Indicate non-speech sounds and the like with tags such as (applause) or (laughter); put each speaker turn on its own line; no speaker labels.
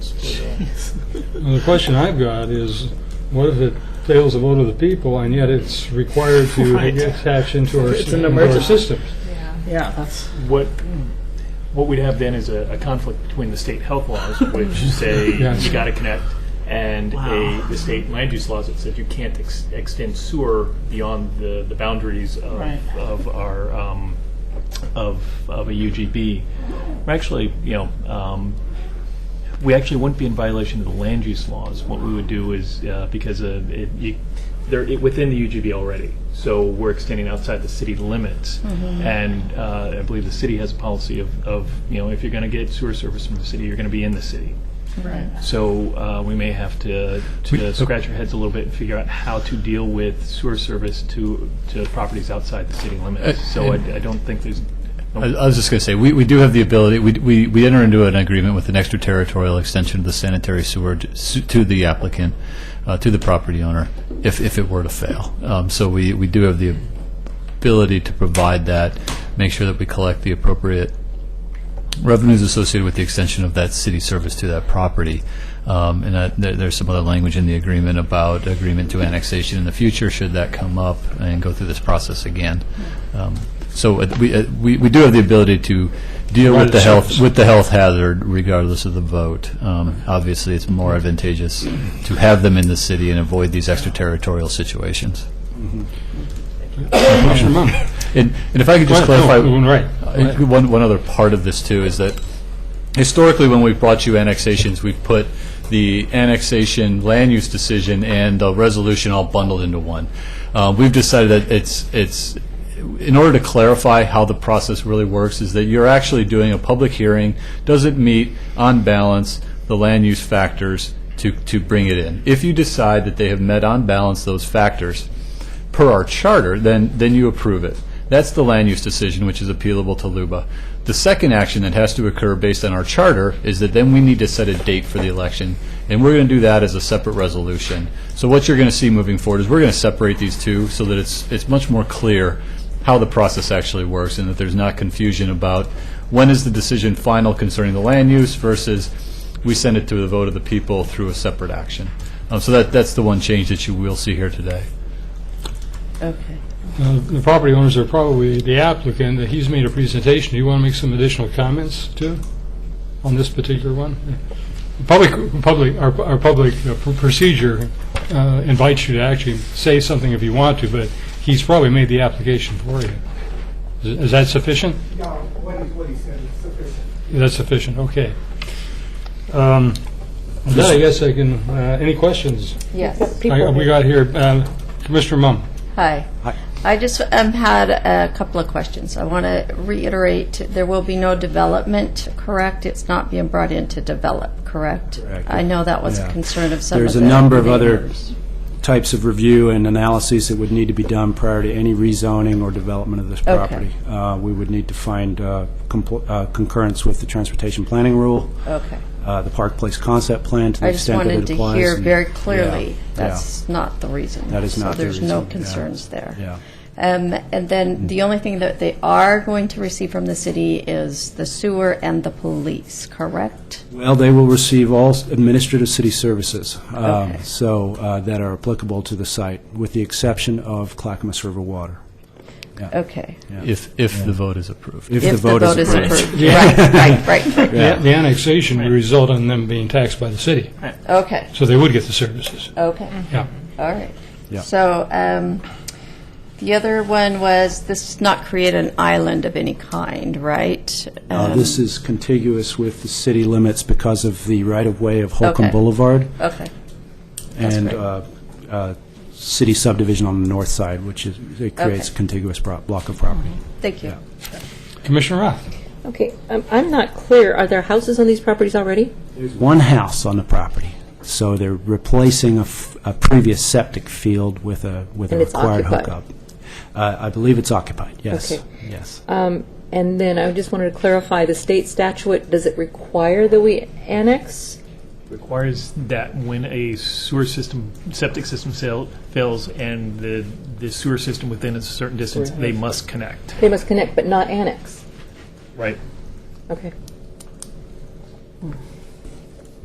Well, the question I've got is, what if it fails the vote of the people and yet it's required to
(laughs) Right.
attach into our,
It's an
into our
emergency.
systems?
Yeah.
That's
What, what we'd have then is a, a conflict between the state health laws, which say
Yes.
you got to connect, and
Wow.
a, the state land use laws that said you can't ex- extend sewer beyond the, the boundaries of,
Right.
of our um, of of a UGB. We're actually, you know, um, we actually wouldn't be in violation of the land use laws. What we would do is uh, because uh it, you, they're it, within the UGB already, so we're extending outside the city limits. And uh, I believe the city has a policy of, of you know if you're going to get sewer service from the city, you're going to be in the city.
right.
So uh, we may have to, to scratch our heads a little bit and figure out how to deal with sewer service to, to properties outside the city limits.
Uh,
So I,
and-
I don't think there's,
I I was just going to say, we, we do have the ability, we, we, we enter into an agreement with an extraterritorial extension of the sanitary sewer to su- to the applicant, uh, to the property owner, if, if it were to fail. Um, So we, we do have the ability to provide that, make sure that we collect the appropriate revenues associated with the extension of that city service to that property. Um, And that- there- there's some other language in the agreement about agreement to annexation in the future, should that come up and go through this process again. Um, So uh, we uh, we we do have the ability to deal
Provide
with the
the
health,
service.
with the health hazard regardless of the vote. Um, Obviously, it's more advantageous to have them in the city and avoid these extraterritorial situations.
Commissioner Mum?
And and if I could just clarify.
No, Right.
Uh, One, one other part of this, too, is that historically, when we've brought you annexations, we've put the annexation land use decision and the resolution all bundled into one. Uh, We've decided that it's, it's, in order to clarify how the process really works, is that you're actually doing a public hearing, does it meet, on balance, the land use factors to, to bring it in? If you decide that they have met on balance those factors, per our charter, then, then you approve it. That's the land use decision, which is appealable to LUBA. The second action that has to occur based on our charter is that then we need to set a date for the election, and we're going to do that as a separate resolution. So what you're going to see moving forward is we're going to separate these two so that it's, it's much more clear how the process actually works and that there's not confusion about when is the decision final concerning the land use versus we send it to the vote of the people through a separate action. Um, So that, that's the one change that you will see here today.
Okay.
Uh, The property owners are probably the applicant, uh, he's made a presentation. Do you want to make some additional comments too, on this particular one? Public, public, our our public uh, pr- procedure uh, invites you to actually say something if you want to, but he's probably made the application for you. Is is that sufficient?
No, what he, what he said is sufficient.
That's sufficient, okay. Um, with That, I guess I can, uh, any questions? (laughs)
Yes.
I- We got here, um, Commissioner Mum.
Hi. I just um, had a couple of questions. I want to reiterate, there will be no development, correct? It's not being brought in to develop, correct? I know that was a concern of some of
There's a
the
number of other
neighbors.
types of review and analyses that would need to be done prior to any rezoning or development of this
Okay.
property. Uh, We would need to find uh, compl- uh, concurrence with the transportation planning rule,
Okay.
uh, the Park Place concept plan to the
I just
extent that
wanted
it
to
applies.
hear
and-
very
yeah,
clearly,
yeah.
that's not the reason.
That is not
So
the
there's no
reason, yeah.
concerns there.
Yeah. Mm-hmm.
Um, And then the only thing that they are going to receive from the city is the sewer and the police, correct?
Well, they will receive all s- administrative city services, um,
Okay.
so, uh, that are applicable to the site, with the exception of Clackamas River Water.
Okay.
If, if the vote is approved.
If the vote is approved.
Right, right, right,
(laughs)
right.
The the annexation would result in them being taxed by the city,
Okay,
so they would get the services.
okay,
Yeah.
all right.
Yeah.
So um, the other one was, this does not create an island of any kind, right?
Uh,
Um,
This is contiguous with the city limits because of the right-of-way of Holcomb
Okay.
Boulevard.
Okay,
and
great.
uh, uh, city subdivision on the north side, which is, it creates
Okay.
contiguous pro- block of property.
thank you.
Commissioner Roth?
Okay, um, I'm not clear, are there houses on these properties already?
There's one house on the property, so they're replacing a f- a previous septic field with a, with a
And it's
required
occupied?
hookup. Uh, I believe it's occupied, yes,
Okay.
yes.
And then I just wanted to clarify, the state statute, does it require that we annex?
requires that when a sewer system, septic system fail- fails and the, the sewer system within a certain distance, they must connect.
They must connect, but not annex.
Right.
Okay.